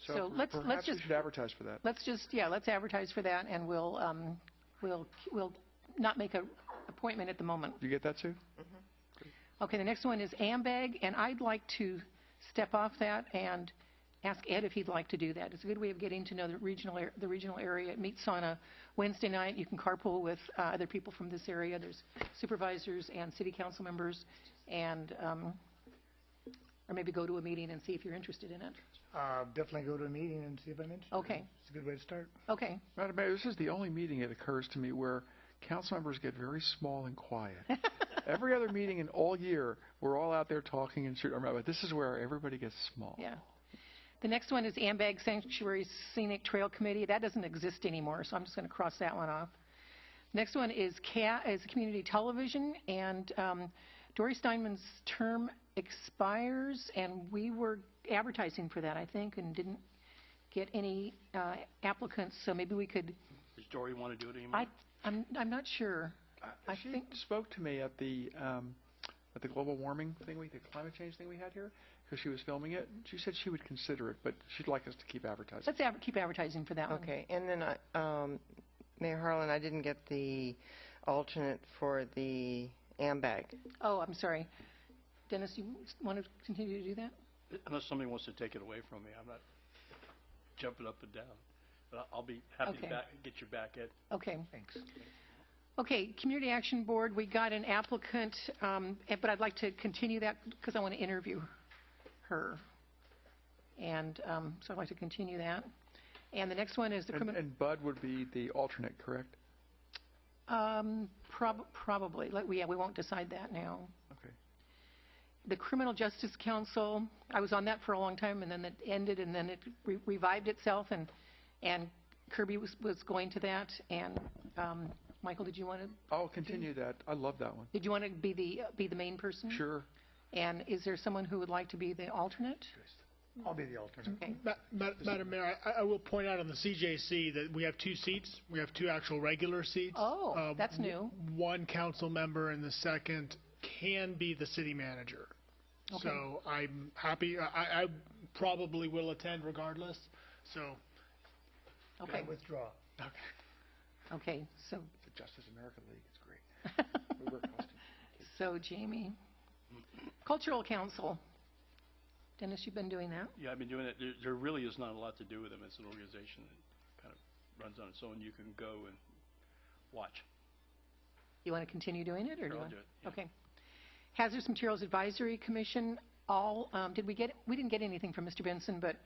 So per- let's- let's Perhaps we just- should advertise for that. Let's just, yeah, let's advertise for that, and we'll, um, we'll, we'll not make a appointment at the moment. You get that, Sue? Okay, the next one is AMBAG, and I'd like to step off that and ask Ed if he'd like to do that. It's a good way of getting to know the regional, ar- the regional area. It meets on a Wednesday night. You can carpool with uh, other people from this area. There's supervisors and city council members, and, um, or maybe go to a meeting and see if you're interested in it. Uh, Definitely go to a meeting and see if I'm interested. Okay. It's a good way to start. Okay, Madam Mayor, this is the only meeting, it occurs to me, where council members get very small and quiet. Every other meeting in all year, we're all out there talking and shooting, our mouth, but this is where everybody gets small. yeah. The next one is AMBAG Sanctuary Scenic Trail Committee. That doesn't exist anymore, so I'm just going to cross that one off. Next one is CA, is Community Television, and um, Dory Steinman's term expires, and we were advertising for that, I think, and didn't get any uh, applicants, so maybe we could, Does Dory want to do it anymore? I, I'm, I'm not sure. I Uh, She think- spoke to me at the, um, at the global warming thing, we the climate change thing we had here, because she was filming it. She said she would consider it, but she'd like us to keep advertising. Let's adver- keep advertising for that one. Okay, and then I, um, Mayor Harlan, I didn't get the alternate for the AMBAG. Oh, I'm sorry. Dennis, you want to continue to do that? Unless somebody wants to take it away from me, I'm not jumping up and down. But I- I'll be happy Okay. to back, get your back at. Okay. Thanks. Okay, Community Action Board, we got an applicant, um, eh, but I'd like to continue that because I want to interview her. And um, so I'd like to continue that. And the next one is the And criminal, and Bud would be the alternate, correct? um, prob- probably, Let- yeah, we won't decide that now. Okay. The Criminal Justice Council, I was on that for a long time, and then it ended, and then it re- revived itself, and and Kirby was was going to that. And um, Michael, did you want to, I'll continue that. I love that one. did you want to be the, be the main person? Sure. And is there someone who would like to be the alternate? I'll be the alternate. Okay. Ma- ma- Madam Mayor, I- I will point out on the CJC that we have two seats. We have two actual regular seats. Oh, Uh, that's new. One council member and the second can be the city manager. So I'm happy, I- I I probably will attend regardless, so. Okay, Withdraw. okay, so, The Justice America League is great. We wear costumes. so Jamie. Cultural Council. Dennis, you've been doing that? Yeah, I've been doing it. There, there really is not a lot to do with them. It's an organization that kind of runs on its own. You can go and watch. You want to continue doing it, or do Sure, you I'll want? do it, yeah. Okay. Hazardous Materials Advisory Commission, all, um, did we get, we didn't get anything from Mr. Benson, but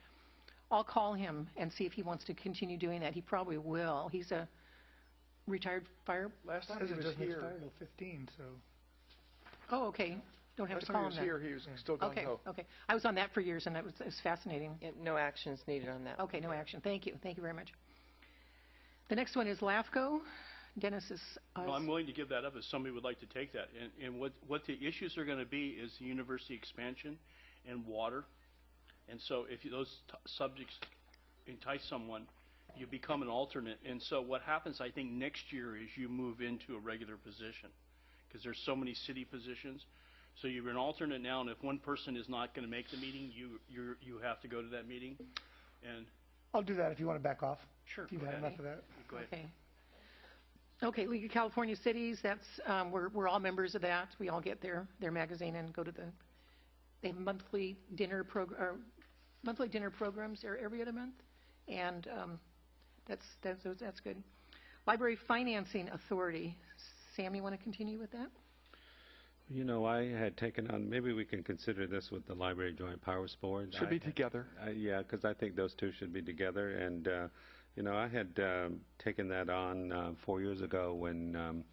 I'll call him and see if he wants to continue doing that. He probably will. He's a retired fire, Last time Says he it was doesn't here, expire till 15, so. oh, okay, don't have last to time he call him was then. here, he was still gung Okay, ho. okay. I was on that for years, and that was it was fascinating. Yeah, No actions needed on that. Okay, no action. Thank you. Thank you very much. The next one is LAFCO. Dennis is, uh, Well, I'm willing to give that up if somebody would like to take that. And, and what, what the issues are going to be is the university expansion and water. And so if you- those t- subjects entice someone, you become an alternate. And so what happens, I think, next year is you move into a regular position because there's so many city positions. So you're an alternate now, and if one person is not going to make the meeting, you, you're, you have to go to that meeting. And, I'll do that if you want to back off. Sure, If you've go had ahead. enough of that. go ahead. okay. Okay, League of California Cities, that's, um, we're, we're all members of that. We all get their, their magazine and go to the, they have monthly dinner prog, or monthly dinner programs are every other month. And, um, that's, that's, that's good. Library Financing Authority. Sam, you want to continue with that? You know, I had taken on, maybe we can consider this with the Library Joint Powers Board. Should be I- together. I- Yeah, because I think those two should be together, and, uh, you know, I had um, taken that on uh, four years ago when um,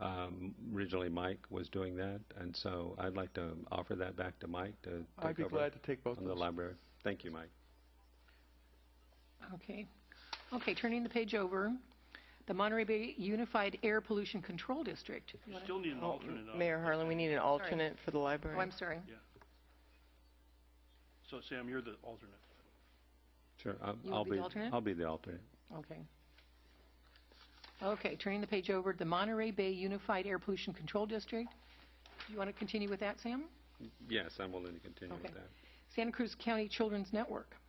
um, originally Mike was doing that, and so I'd like to offer that back to Mike to I'd take be over glad to take both on the those. library. Thank you, Mike. Okay. Okay, turning the page over, the Monterey Bay Unified Air Pollution Control District. You You wanna- still need an Oh, alternate on. Mayor Harlan, we need an alternate for the Oh, library. I'm sorry. So Sam, you're the alternate. Sure, I'll- You would I'll be the alternate? I'll be the alternate. Okay. Okay, turning the page over, the Monterey Bay Unified Air Pollution Control District. You want to continue with that, Sam? Yes, I'm willing to continue with Okay. that. Santa Cruz County Children's Network.